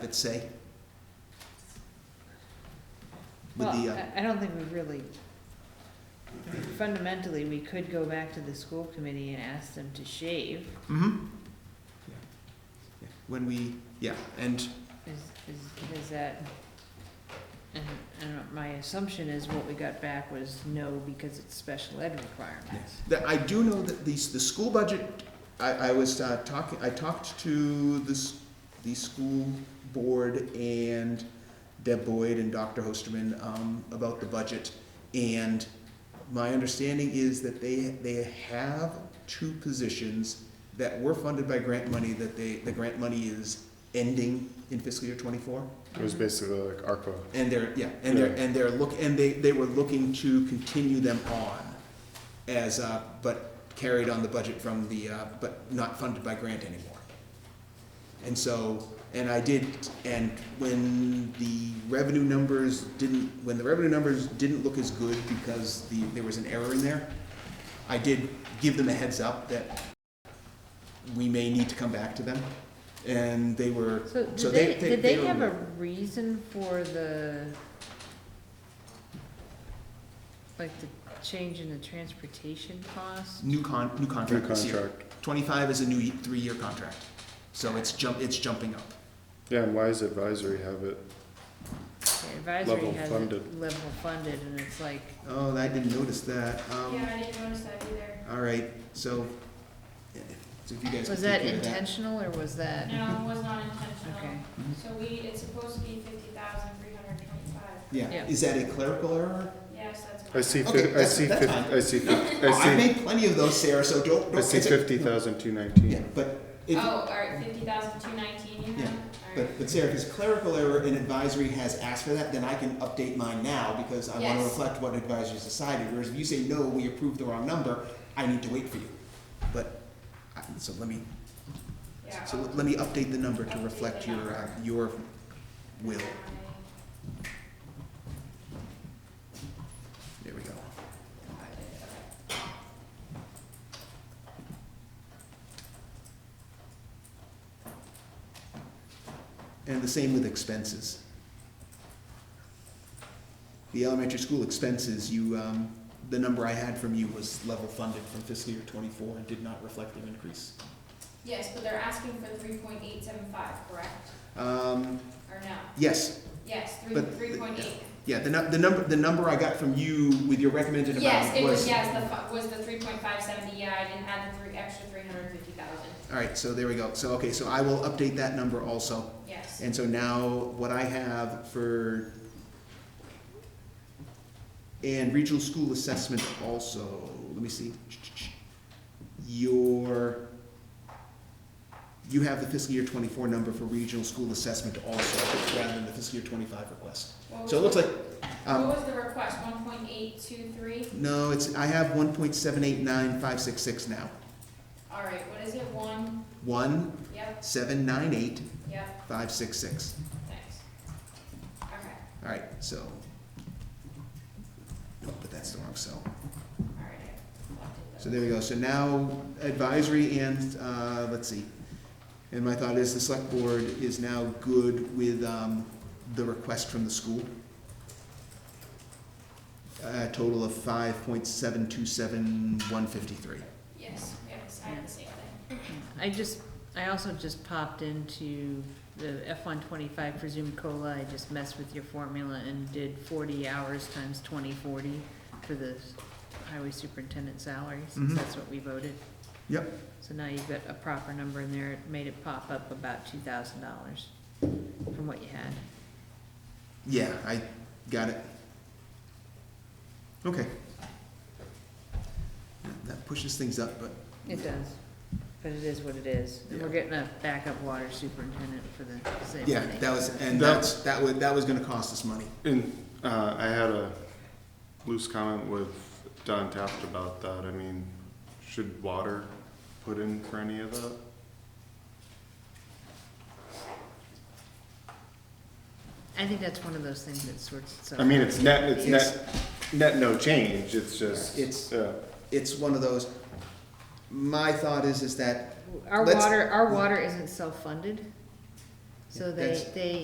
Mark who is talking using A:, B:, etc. A: it say? With
B: Well,
A: the, uh,
B: I- I don't think we really, fundamentally, we could go back to the school committee and ask them to shave.
A: mhm. Yeah. Yeah. When we, yeah, and,
B: Is, is, is that, and, and my assumption is what we got back was no because it's special ed requirements.
A: that, I do know that these, the school budget, I, I was uh, talking, I talked to this, the school board and Deb Boyd and Dr. Hosterman, um, about the budget. And my understanding is that they, they have two positions that were funded by grant money, that they, the grant money is ending in fiscal year twenty-four.
C: It was basically like ARPA.
A: And they're, yeah, and they're,
C: Yeah.
A: and they're look, and they, they were looking to continue them on as, uh, but carried on the budget from the, uh, but not funded by grant anymore. And so, and I did, and when the revenue numbers didn't, when the revenue numbers didn't look as good because the, there was an error in there, I did give them a heads up that we may need to come back to them, and they were,
B: So
A: So they-
B: did they,
A: they-
B: did they
A: they
B: have
A: were-
B: a reason for the, like the change in the transportation cost?
A: new con, new
C: New
A: contract this year.
C: contract.
A: 25 is a new y- three-year contract, so it's jump, it's jumping up.
C: Yeah, and why does advisory have it?
B: The Advisory
C: Level
B: has it
C: funded.
B: level funded and it's like,
A: Oh, I didn't notice that. Um,
D: Yeah, I didn't notice that either.
A: All right, so, eh, so if you guys could
B: was that
A: take care of that.
B: intentional or was that?
D: No, it was not
B: Okay,
D: intentional. So we, it's supposed to be fifty thousand three hundred twenty-five.
A: Yeah,
B: Yeah.
A: is that a clerical error?
D: Yes, that's. Oh,
C: I see,
A: Okay,
C: fif- I
A: that's-
C: see,
A: that's
C: fif-
A: fine.
C: I see, fif-
A: Oh, I
C: I see,
A: made plenty of those, Sarah, so don't, don't.
C: I see
A: it's a-
C: fifty thousand two nineteen.
A: Yeah, but
D: Oh,
A: if,
D: all right, fifty thousand two nineteen you
A: Yeah,
D: have? All right.
A: but, but Sarah, if it's clerical error and advisory has asked for that, then I can update mine now because I want to
D: Yes.
A: reflect what advisory's decided. Whereas if you say, no, we approved the wrong number, I need to wait for you. But, I- so let me,
D: Yeah.
A: So
D: I'll-
A: let me update the number to reflect your, uh, your will. There we go. And the same with expenses. The elementary school expenses, you, um, the number I had from you was level funded from fiscal year twenty-four and did not reflect an increase.
D: Yes, but they're asking for three point eight seven five, correct?
A: Um,
D: Or no?
A: yes,
D: Yes, three,
A: But-
D: three point eight.
A: Yeah, the, nu- the number, the number I got from you with your recommended
D: Yes,
A: amount
D: it was,
A: was,
D: yes, the, fi- was the three point five seventy, yeah, I didn't add the three, extra three hundred fifty thousand,
A: alright, so there we go, so, okay, so I will update that number also,
D: yes.
A: and so now what I have for. And regional school assessment also, let me see. Your. You have the fiscal year twenty-four number for regional school assessment also, rather than the fiscal year twenty-five request,
D: What
A: so it
D: was
A: looks like,
D: the-
A: um,
D: What was the request, one point eight two three?
A: no, it's, I have one point seven eight nine five six six now.
D: All right, what is it, one?
A: One
D: Yep,
A: seven nine eight
D: yep.
A: five six six.
D: Thanks. Okay,
A: All right, so. Nope, but that's the wrong cell.
D: all right. I collected
A: So
D: those.
A: there we go. So now advisory and, uh, let's see. And my thought is the select board is now good with, um, the request from the school. A total of five point seven two seven one fifty-three.
D: Yes, yes, I have the same thing.
B: I just, I also just popped into the F one twenty-five presumed COLA, I just messed with your formula and did forty hours times twenty forty for the highway superintendent salary, since
A: Mhm.
B: that's what we voted.
A: Yep.
B: So now you've got a proper number in there, it made it pop up about two thousand dollars from what you had.
A: Yeah, I got it. Okay. That- That pushes things up, but
B: It does, but it is what it is, and we're
A: Yeah.
B: getting a backup water superintendent for the same
A: Yeah,
B: money.
A: that was, and
C: That-
A: that's, that was, that was gonna cost us money.
C: And, uh, I had a loose comment with Don Taft about that. I mean, should water put in for any of that?
B: I think that's one of those things that sorts itself.
C: I mean, it's net, it's
A: It's,
C: net, net no change. It's just,
A: It's-
C: yeah.
A: it's one of those, my thought is, is that,
B: Our
A: let's-
B: water, our water isn't self-funded, So they,
A: That's-
B: they